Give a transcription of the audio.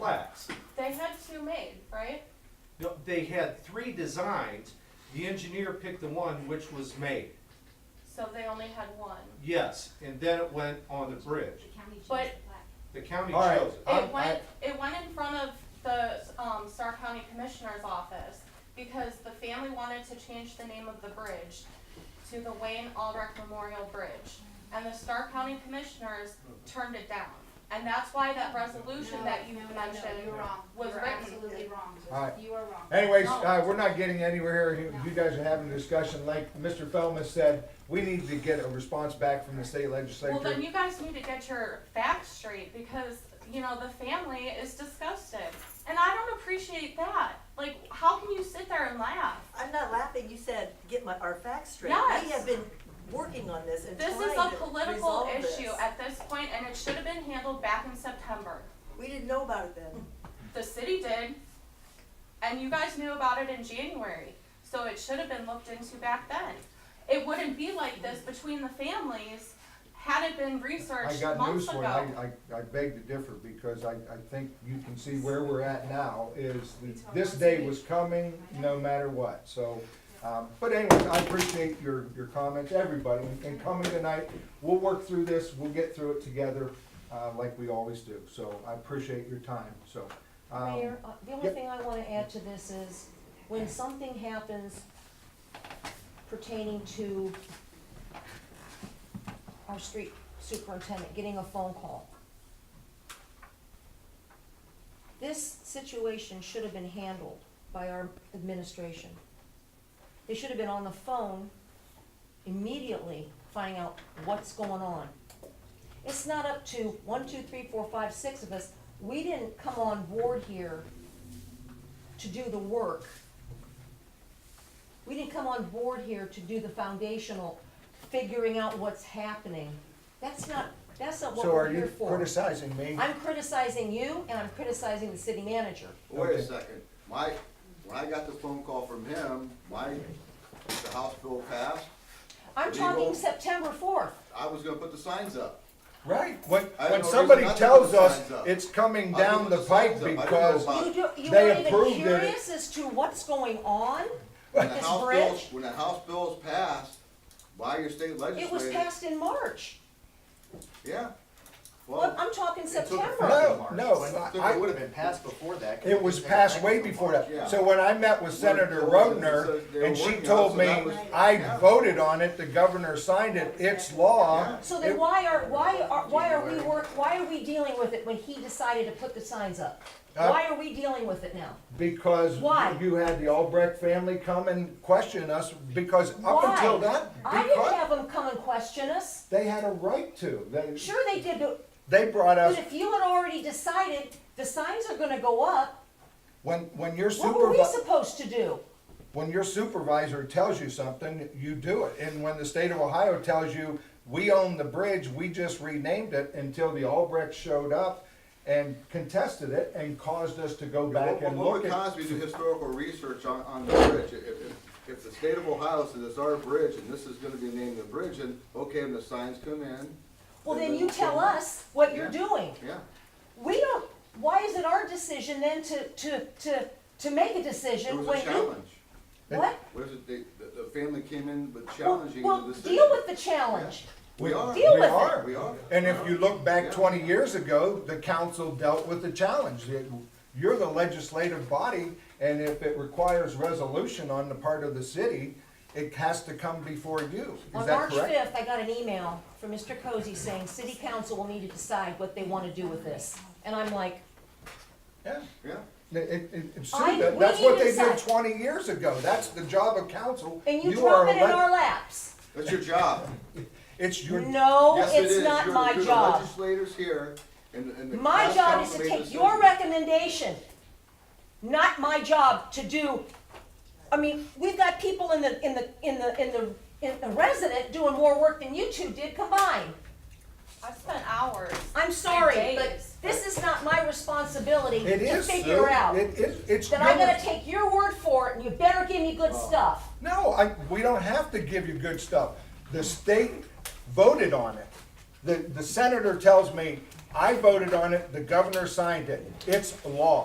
plaques. They had two made, right? No, They had three designs. The engineer picked the one which was made. So they only had one. Yes, and then it went on the bridge. But- The county All right. chose it. I'm- It went, I- it went in front of the, um, Stark County Commissioner's office because the family wanted to change the name of the bridge to the Wayne Albrecht Memorial Bridge. And the Stark County Commissioners turned it down. And that's why that resolution that you You're mentioned, wrong. was You're written. absolutely wrong. All right. You are wrong. Anyways, No. uh, we're not getting anywhere here. You- You guys are having a discussion. Like Mr. Feldman said, we need to get a response back from the state well, then legislature. you guys need to get your facts straight because, you know, the family is disgusted. And I don't appreciate that. Like, how can you sit there and laugh? I'm not laughing, you said, get my, our facts straight. Yes. We have been working on this and trying This to is resolve a this. political issue at this point, and it should have been handled back in September. We didn't know about it then. The city did, and you guys knew about it in January, so it should have been looked into back then. It wouldn't be like this between the families had it been I researched got months news for you. I, ago. I, I beg to differ because I, I think you can see where we're at now is that It's this hard. day was coming no matter what. So, um, but anyways, I appreciate your, your comments, everybody, and coming tonight. We'll work through this. We'll get through it together, uh, like we always do. So I appreciate your time, so. um, Mayor, uh, the only yep. thing I wanna add to this is, when something happens pertaining to our street superintendent getting a phone call, this situation should have been handled by our administration. They should have been on the phone immediately finding out what's going on. It's not up to one, two, three, four, five, six of us. We didn't come on board here to do the work. We didn't come on board here to do the foundational, figuring out what's happening. That's not, that's not what So we're are here you for. criticizing me? I'm criticizing you and I'm criticizing the city manager. Wait Okay. a second, my, when I got the phone call from him, my, the House bill passed, I'm talking Legal. September fourth. I was gonna put the signs up. Right, when, I when know somebody there's nothing tells but us signs up. it's coming Nothing down but the the pike signs up. I don't know because, about- You do, you They weren't even approved it. curious as to what's going on When with the this House bill, bridge? when the House bill is passed by your state It was legislature, passed in March. yeah. Well, Well, I'm talking It took September. effect in No, March. no, and I- So It would have been passed before that. 'cause it was took passed effect way in before March. that. So when I met with Senator Well, it was- Rodner, they were and she working on it, told so me, that was- I yeah. voted on it, the governor signed it, it's law. Yeah. So then It- why are, why are, why are we work, why are we dealing with it when he decided to put the signs up? Uh, Why are we dealing with it now? Because Why? you had the Albrecht family come and question us, because up Why? until that, I didn't because have them come and question us. they had a right to. They, Sure they did, but, they brought but us, if you had already decided the signs are gonna go up, when, when your what were we supervisor. supposed to do? when your supervisor tells you something, you do it. And when the state of Ohio tells you, we own the bridge, we just renamed it until the Albrecht showed up and contested it and caused us to go what- back what and what look would at. cause me to do historical research on, on the bridge? If, if, if the state of Ohio says it's our bridge and this is gonna be named the bridge, and okay, and the signs come in, Well, then you tell us what you're doing. yeah. We don't, why is it our decision then to, to, to, to make a It decision was when a you? challenge. What? What is it, they- the, the family came in with Well- challenging Well, the decision. deal with the challenge. We are. Deal We with it. are. We are. And if you look Yeah. back twenty years ago, the council dealt with the challenge. It- You're the legislative body, and if it requires resolution on the part of the city, it has to come before you. Is On that March correct? fifth, I got an email from Mr. Cozy saying, city council will need to decide what they wanna do with this. And I'm like, Yeah. Yeah. It- It, it, it's I- that- we that's what they decide. did twenty years ago, that's the job of council. and you are drop it in elect- our laps. That's your job. It's your, No, Yes, it it's is. not You're- my you're the job. Legislators here and, and the. My class job is council to made take decisions. your recommendation, not my job to do, I mean, we've got people in the, in the, in the, in the, in the resident doing more work than you two did combined. I spent hours. I'm sorry, And but days. this is not my responsibility it to is, Sue, figure out. it is, it's. Then I'm your- gonna take your word for it and you better give me Oh. good stuff. No, I, we don't have to give you good stuff, the state voted on it. The, the senator tells me, I voted on it, the governor signed it, it's law.